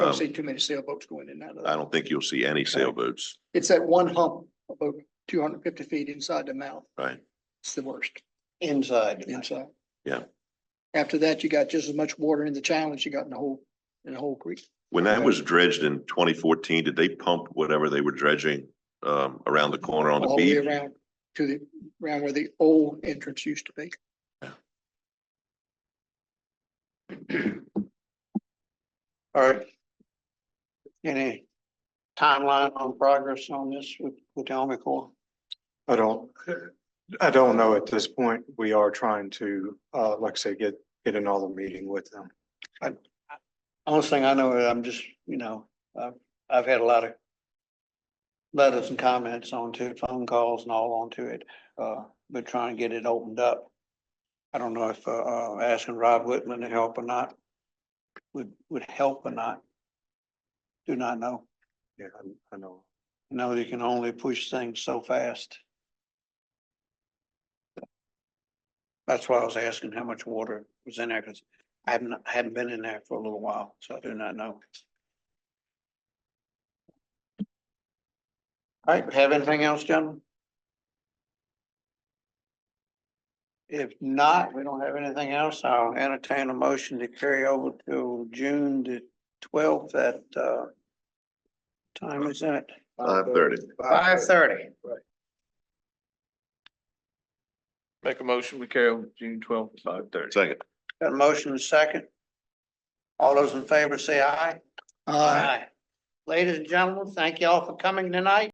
Um, don't see too many sailboats going in that. I don't think you'll see any sailboats, It's that one hump about two hundred and fifty feet inside the mouth. right? It's the worst inside. inside. Yeah. After that, you got just as much water in the channel as you got in the whole, in the whole creek. When that was dredged in twenty fourteen, did they pump whatever they were dredging um around the corner on the All the way beach? around to the, around where the old entrance used to be. All right. Any timeline on progress on this with, with the Army Corps? I don't, I don't know at this point. We are trying to, uh, like I say, get, get another meeting with them. Only thing I know, I'm just, you know, I've, I've had a lot of letters and comments onto it, phone calls and all onto it, uh, but trying to get it opened up. I don't know if, uh, uh, asking Rob Whitman to help or not would, would help or not. Do not know. Yeah, I, I know. No, you can only push things so fast. That's why I was asking how much water was in there, because I haven't, I hadn't been in there for a little while, so I do not know. All right, have anything else, gentlemen? If not, we don't have anything else, I'll entertain a motion to carry over to June the twelfth at, uh, time is that? uh, Five thirty. Five thirty. Make a motion, we carry on June twelfth, five thirty. Second, Got a motion and a second. All those in favor say aye. Uh, Ladies and gentlemen, thank you all for coming tonight.